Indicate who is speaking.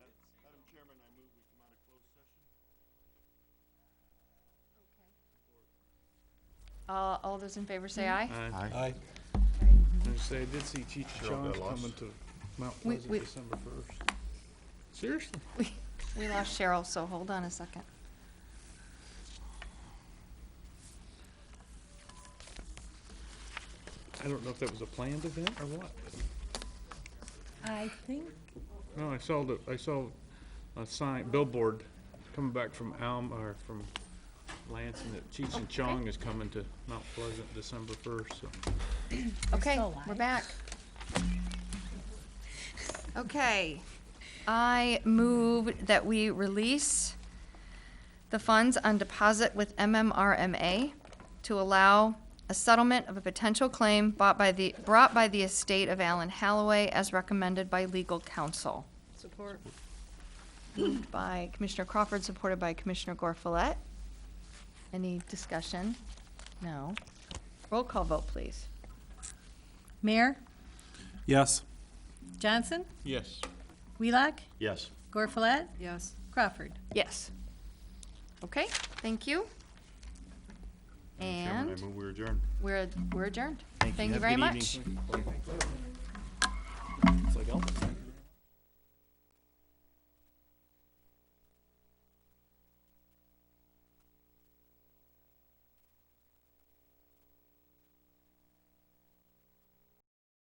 Speaker 1: All, Uh, all those in favor say aye.
Speaker 2: Aye.
Speaker 3: I say, I did see Cheech and
Speaker 4: Cheryl got
Speaker 3: Chong's
Speaker 4: lost.
Speaker 3: coming to Mount
Speaker 1: We-
Speaker 3: Pleasant
Speaker 1: we-
Speaker 3: December first. Seriously?
Speaker 1: We, we lost Cheryl, so hold on a second.
Speaker 3: I don't know if that was a planned event or what.
Speaker 5: I think,
Speaker 3: No, I saw the, I saw a sign, billboard, coming back from Alm, or from Lansing, that Cheech and Chong is coming to Mount Pleasant December first, so.
Speaker 1: Okay,
Speaker 5: still
Speaker 1: we're
Speaker 5: live.
Speaker 1: back. Okay, I move that we release the funds on deposit with MMRMA to allow a settlement of a potential claim bought by the, brought by the estate of Alan Halloway as recommended by legal counsel.
Speaker 5: support,
Speaker 1: Moved by Commissioner Crawford, supported by Commissioner Gorfulet. Any discussion? No. Roll call vote, please.
Speaker 5: Mayor
Speaker 2: Yes.
Speaker 5: Johnson,
Speaker 3: Yes.
Speaker 5: Wheelock,
Speaker 4: Yes.
Speaker 5: Gorfulet. Yes. Crawford.
Speaker 1: Yes. Okay, thank you.
Speaker 4: Chairman,
Speaker 1: And
Speaker 4: I move we adjourn.
Speaker 1: we're, we're adjourned.
Speaker 4: Thank you.
Speaker 1: Thank you
Speaker 4: Have a
Speaker 1: very
Speaker 4: good
Speaker 1: much.
Speaker 4: evening.